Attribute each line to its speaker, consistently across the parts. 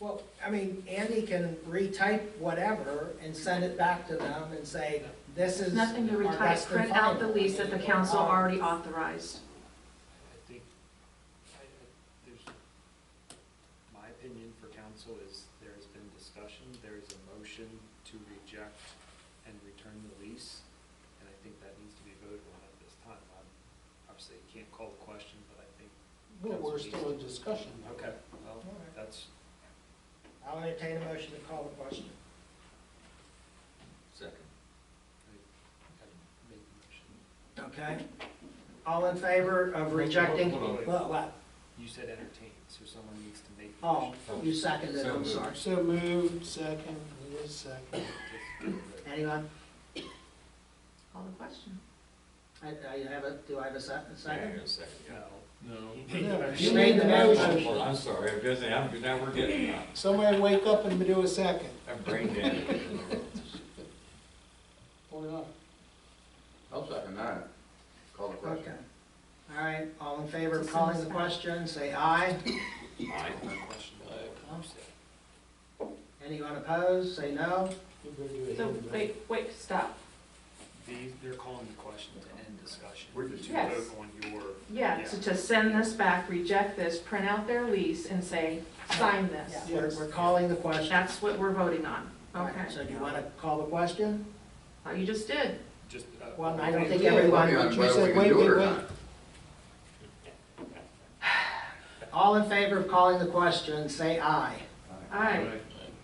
Speaker 1: Well, I mean, Andy can retype whatever and send it back to them and say, this is.
Speaker 2: Nothing to
Speaker 1: our
Speaker 2: retype,
Speaker 1: best and
Speaker 2: print out the
Speaker 1: final.
Speaker 2: lease that the council already authorized.
Speaker 3: I think, I, I- there's, my opinion for council is there has been discussion, there is a motion to reject and return the lease, and I think that needs to be voted on at this time. I'm, obviously, you can't call the question, but I think,
Speaker 4: Well, we're still in discussion.
Speaker 3: okay,
Speaker 1: All
Speaker 3: well,
Speaker 1: right.
Speaker 3: that's,
Speaker 1: I'll entertain a motion to call the question.
Speaker 5: Second.
Speaker 3: I made the motion.
Speaker 1: Okay? All in favor of rejecting?
Speaker 5: Hold on, hold
Speaker 1: Well, what?
Speaker 3: You said entertain, so someone needs to make the
Speaker 1: Oh,
Speaker 3: motion.
Speaker 1: you seconded, I'm
Speaker 5: So
Speaker 1: sorry.
Speaker 4: So moved, second, who is second?
Speaker 3: Just-
Speaker 1: Anyone?
Speaker 2: Call the question.
Speaker 1: I, I have a, do I have a se- a second?
Speaker 5: Yeah, second, yeah.
Speaker 3: No.
Speaker 5: No.
Speaker 3: He made the
Speaker 4: Yeah,
Speaker 3: motion.
Speaker 4: You made the
Speaker 5: Well,
Speaker 4: motion.
Speaker 5: I'm sorry, I'm just, I'm, now we're getting, uh,
Speaker 4: Somebody wake up and do a second,
Speaker 5: I'm brain dead.
Speaker 4: or not.
Speaker 6: I'll second that. Call the
Speaker 1: Okay.
Speaker 6: question.
Speaker 1: All right, all in favor of calling the question, say aye.
Speaker 5: Aye.
Speaker 3: Question. Uh,
Speaker 1: Anyone opposed, say no.
Speaker 4: You better do it.
Speaker 2: So,
Speaker 4: anyway.
Speaker 2: wait, wait, stop.
Speaker 3: These, they're calling the question to end discussion.
Speaker 6: We're just-
Speaker 3: To
Speaker 2: Yes.
Speaker 3: vote on your.
Speaker 2: Yeah, so to send this back, reject this, print out their lease and say, sign this.
Speaker 1: Yeah, We're, we're calling the question.
Speaker 2: That's what we're voting on.
Speaker 1: All
Speaker 2: Okay.
Speaker 1: right, So do you want to call the question?
Speaker 2: Oh, You just did.
Speaker 3: Just. uh,
Speaker 1: Well, I don't
Speaker 3: okay.
Speaker 1: think
Speaker 4: Yeah,
Speaker 1: everyone.
Speaker 6: Depending on
Speaker 4: she
Speaker 6: whether
Speaker 4: said,
Speaker 6: we can
Speaker 4: wait,
Speaker 6: do it
Speaker 4: wait,
Speaker 6: or
Speaker 4: wait.
Speaker 6: not.
Speaker 1: All in favor of calling the question, say aye.
Speaker 2: All right.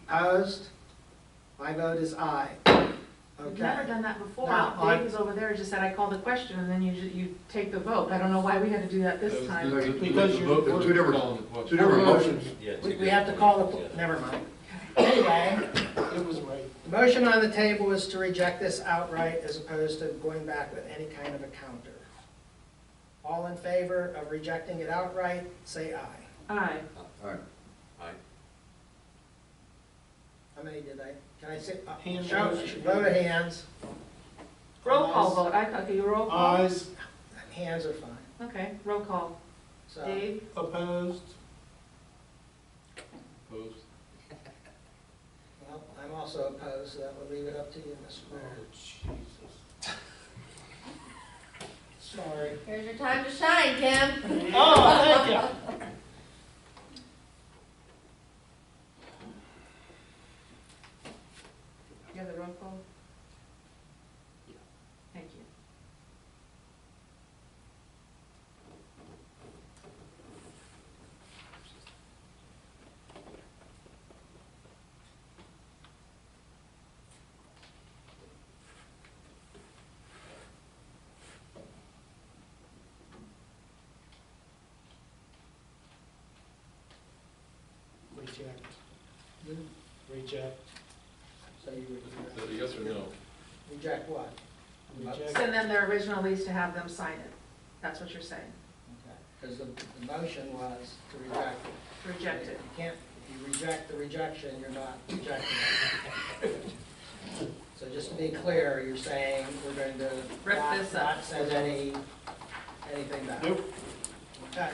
Speaker 1: Opposed? My vote is aye.
Speaker 2: We've never
Speaker 1: Okay.
Speaker 2: done that before.
Speaker 1: No, I-
Speaker 2: Dave was over there, just said, I called the question, and then you, ju- you take the vote. I don't know why we had to do that this time.
Speaker 6: Because
Speaker 4: Because you're-
Speaker 6: There's two different, two different motions.
Speaker 5: Yeah,
Speaker 1: We,
Speaker 5: two
Speaker 1: we have to
Speaker 5: different
Speaker 1: call
Speaker 5: ones,
Speaker 1: the,
Speaker 5: yeah.
Speaker 1: never mind. Anyway,
Speaker 4: It was right.
Speaker 1: the motion on the table is to reject this outright as opposed to going back with any kind of a counter. All in favor of rejecting it outright, say aye.
Speaker 2: Aye.
Speaker 6: All right.
Speaker 5: Aye.
Speaker 1: How many did I, can I say, uh,
Speaker 4: Hand
Speaker 1: show,
Speaker 4: raise.
Speaker 1: vote of hands,
Speaker 2: Roll call vote. I, okay, you roll call.
Speaker 4: Ayes,
Speaker 1: hands are fine,
Speaker 2: Okay, roll call.
Speaker 1: so.
Speaker 2: Dave?
Speaker 4: opposed,
Speaker 1: Well, I'm also opposed, so that would leave it up to you, Ms.
Speaker 4: Oh,
Speaker 1: Blair. Sorry.
Speaker 7: Here's your time to shine, Kim.
Speaker 4: Oh, thank you.
Speaker 2: You have the roll call?
Speaker 3: Yeah.
Speaker 2: Thank you.
Speaker 4: Reject,
Speaker 1: You-
Speaker 4: reject,
Speaker 1: So you would
Speaker 5: So
Speaker 1: reject-
Speaker 5: Yes or no?
Speaker 1: reject what?
Speaker 4: reject.
Speaker 2: Send them their original lease to have them sign it. That's what you're saying.
Speaker 1: Because the, the motion was to reject.
Speaker 2: Reject
Speaker 1: If
Speaker 2: it.
Speaker 1: You can't, if you reject the rejection, you're not rejecting it. So just to be clear, you're saying we're going to
Speaker 2: Rip
Speaker 1: not-
Speaker 2: this up.
Speaker 1: Not send any, anything back?
Speaker 4: Nope.
Speaker 1: Okay,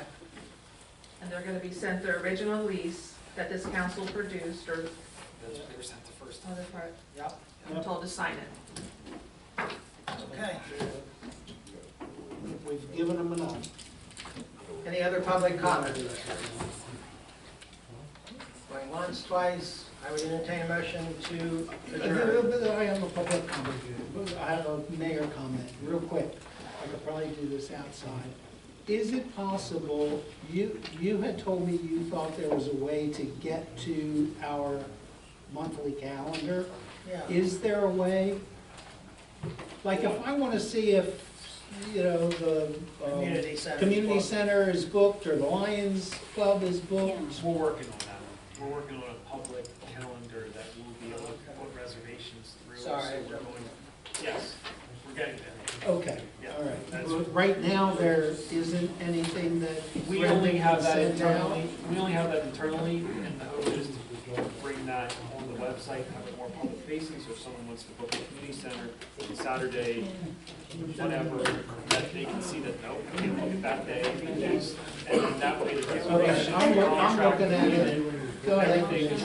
Speaker 2: And they're gonna be sent their original lease that this council produced or
Speaker 3: That's, there's not the first time.
Speaker 2: other part,
Speaker 1: yep,
Speaker 2: I'm told to sign it.
Speaker 1: okay.
Speaker 4: We've given them enough.
Speaker 1: Any other public comment? Going once, twice, I would entertain a motion to adjourn.
Speaker 4: I have a public comment. here. I have a mayor comment, real quick. I could probably do this outside. Is it possible, you, you had told me you thought there was a way to get to our monthly calendar.
Speaker 1: Yeah.
Speaker 4: Is there a way? Like, if I want to see if, you know, the. um,
Speaker 1: Community center.
Speaker 4: Community Center is booked, or the Lions Club is booked.
Speaker 3: We're working on that. We're working on a public calendar that will be able to put reservations through. So
Speaker 1: Sorry.
Speaker 3: we're going, yes, we're getting there.
Speaker 4: Okay,
Speaker 3: Yeah,
Speaker 4: all right.
Speaker 3: that's-
Speaker 4: But Right now, there isn't anything that.
Speaker 3: We only have that
Speaker 4: sent out.
Speaker 3: internally, we only have that internally, and the hope is to bring that on the website, have it more public facing, so if someone wants to book a community center Saturday, whatever, that they can see that, no, we can book it that day, and then that way the
Speaker 4: Okay,
Speaker 3: reservation.
Speaker 4: I'm, loo- I'm looking at it Go ahead.